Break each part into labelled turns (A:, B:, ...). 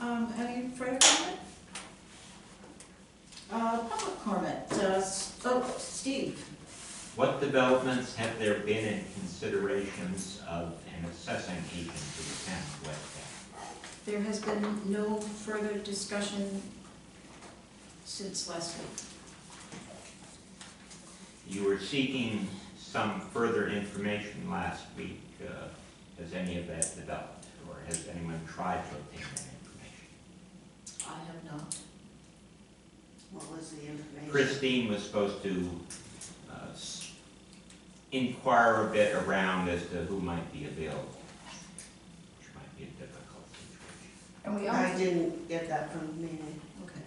A: Um, any further comment? Uh, public comment, uh, S- oh, Steve,
B: What developments have there been in considerations of an assessing agent to the town uh, of West Bath?
A: there has been no further discussion since last week.
B: You were seeking some further information last week. uh, Has any of that developed, or has anyone tried to obtain that information?
A: I have not.
C: What was the information?
B: Christine was supposed to uh, s- inquire a bit around as to who might be available, which might be a difficult situation.
D: And we
C: I
D: also,
C: didn't get that from the meeting.
A: Okay.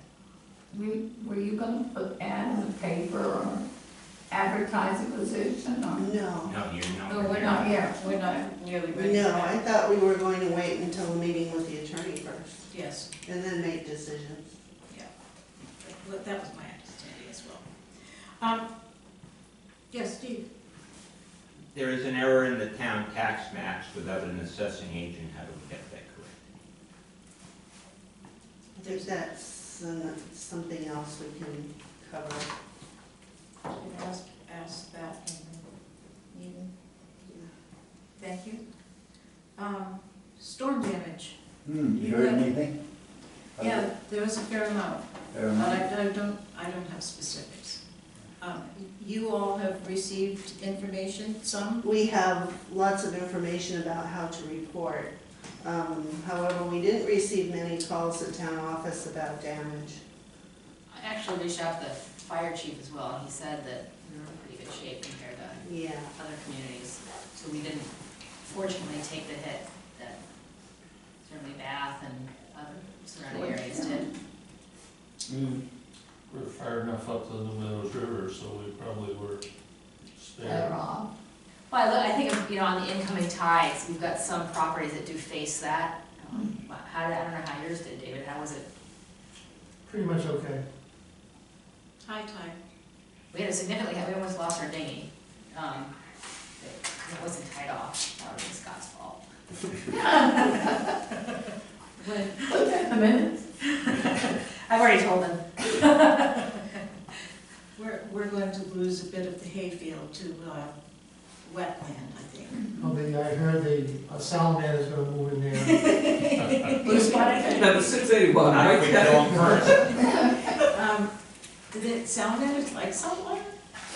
D: we, were you gonna put ad in the paper or advertise a position
C: No,
D: or?
B: No, you're not.
E: No, Oh, we're not, yeah, we're not nearly ready.
C: no, I thought we were going to wait until the meeting with the attorney first
A: Yes,
C: and then make decisions.
A: that that was my understanding as well. Um, yes, Steve,
B: There is an error in the town tax maps without an assessing agent, how do we get that correct?
C: I think that's uh, something else we can cover.
A: you asked, asked that in the meeting. Thank you. Um, storm damage,
F: Hmm, you heard anything?
A: yeah, there was a fair amount.
F: Never
A: But
F: mind.
A: I I don't, I don't have specifics. Um, You all have received information, some?
C: We have lots of information about how to report. Um, However, we didn't receive many calls at town office about damage.
E: I actually reached out to the fire chief as well, and he said that we were in pretty good shape compared to
C: Yeah,
E: other communities. So we didn't fortunately take the hit that certainly Bath and other surrounding areas did.
G: We were far enough up to the New Meadows River, so we probably were
D: Better
G: spared.
D: off.
E: Well, I look, I think, you know, on the incoming tides, we've got some properties that do face that. Um, How, did- I don't know how yours did, David, how was it?
G: Pretty much okay.
A: High tide.
E: We had a significantly, we almost lost our dinghy. Um, It it wasn't tied off, that was Scott's fault.
A: When,
D: Look at the minutes.
E: I've already told them.
A: we're, we're going to lose a bit of the hayfield to uh, wetland, I think.
H: Well, the, I heard the, a salamander is gonna move in there.
A: You spotted it?
I: Now, the six eighty-one,
B: Not
I: right?
B: if we go on first.
A: Um, Did it sound that it's like someone?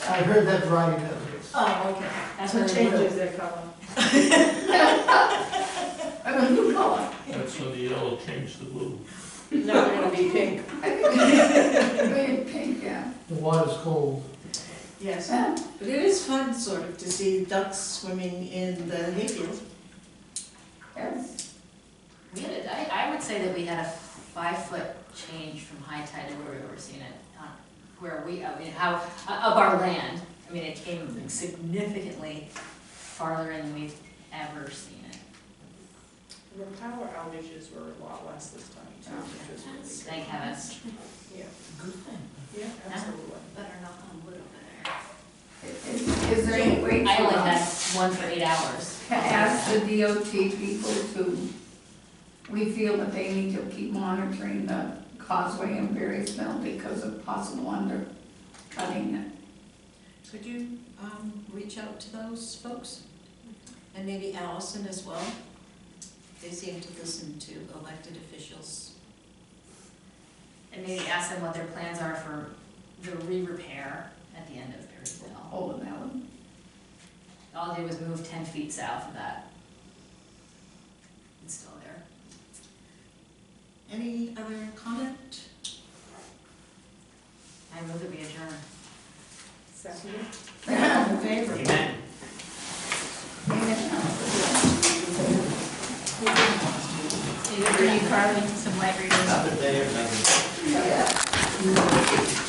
H: I heard that variety of it.
A: Oh, okay. That's
D: what changes
A: their color.
D: I'm a new color.
G: That's when the yellow changed to blue.
A: No, it'll be pink.
D: Very pink, yeah.
H: The water's cold.
A: Yes, but it is fun sort of to see ducks swimming in the hayfield.
D: Yes.
E: We had, a- I, I would say that we had a five-foot change from high tide to where we were seeing it, uh, where we, I mean, how, uh, of our land. I mean, it came significantly farther in than we've ever seen it.
J: The power outages were a lot less this time too, which is really good.
E: Thank heavens.
J: Yeah, absolutely.
E: Better knock on wood over
D: Is is there any way
E: there. I
D: for
E: only had
D: us
E: one for eight hours.
D: to ask the DOT people to, we feel that they need to keep monitoring the causeway and Berry's Mill because of possible undercutting it?
A: Could you um, reach out to those folks? And maybe Allison as well? They seem to listen to elected officials.
E: And maybe ask them what their plans are for the re-repair at the end of Perryville.
D: All of that one.
E: All I did was move ten feet south of that. It's still there.
A: Any other comment?
E: I move that we adjourn.
J: Second.
A: In favor?
B: Amen.
E: David, are you carving some light readers?
D: Yeah.